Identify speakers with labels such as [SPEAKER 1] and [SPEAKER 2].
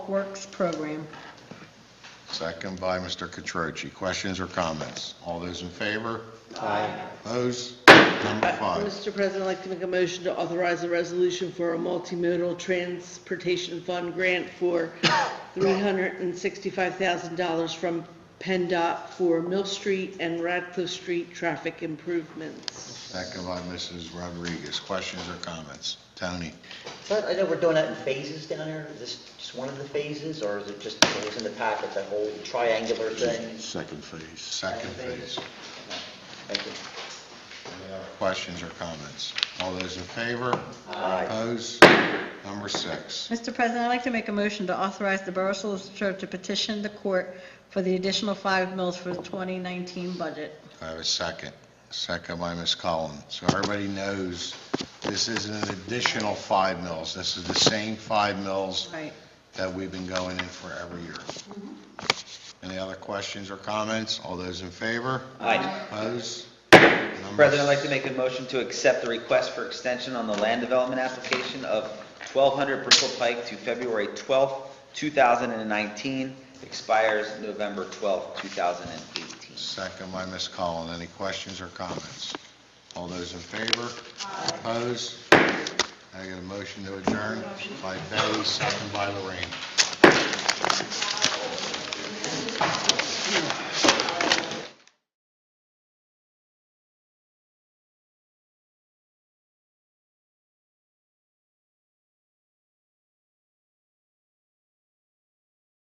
[SPEAKER 1] Works Program.
[SPEAKER 2] Second by Mr. Catroci. Questions or comments? All those in favor? Aye. Opposed? Number five.
[SPEAKER 3] Mr. President, I'd like to make a motion to authorize a resolution for a multimodal transportation fund grant for $365,000 from PennDOT for Mill Street and Radcliffe Street traffic improvements.
[SPEAKER 2] Second by Mrs. Rodriguez. Questions or comments? Tony?
[SPEAKER 4] So I I know we're doing that in phases down here. Is this just one of the phases, or is it just, it was in the packet, that whole triangular thing?
[SPEAKER 2] Second phase. Second phase.
[SPEAKER 4] Thank you.
[SPEAKER 2] Any other Questions or comments? All those in favor?
[SPEAKER 4] Aye.
[SPEAKER 2] Opposed? Number six.
[SPEAKER 1] Mr. President, I'd like to make a motion to authorize the Borough Solicitor to petition the court for the additional five mills for the 2019 budget.
[SPEAKER 2] I have a second. Second by Ms. Collins. So everybody knows this isn't an additional five mills. This is the same five mills
[SPEAKER 1] Right.
[SPEAKER 2] that we've been going in for every year. Any other questions or comments? All those in favor?
[SPEAKER 5] Aye.
[SPEAKER 2] Opposed? Number-
[SPEAKER 5] President, I'd like to make a motion to accept the request for extension on the land development application of 1200 Bristol Pike to February 12th, 2019, expires November 12th, 2018.
[SPEAKER 2] Second by Ms. Collins. Any questions or comments? All those in favor? Opposed? I get a motion to adjourn by Betty, second by Lorraine.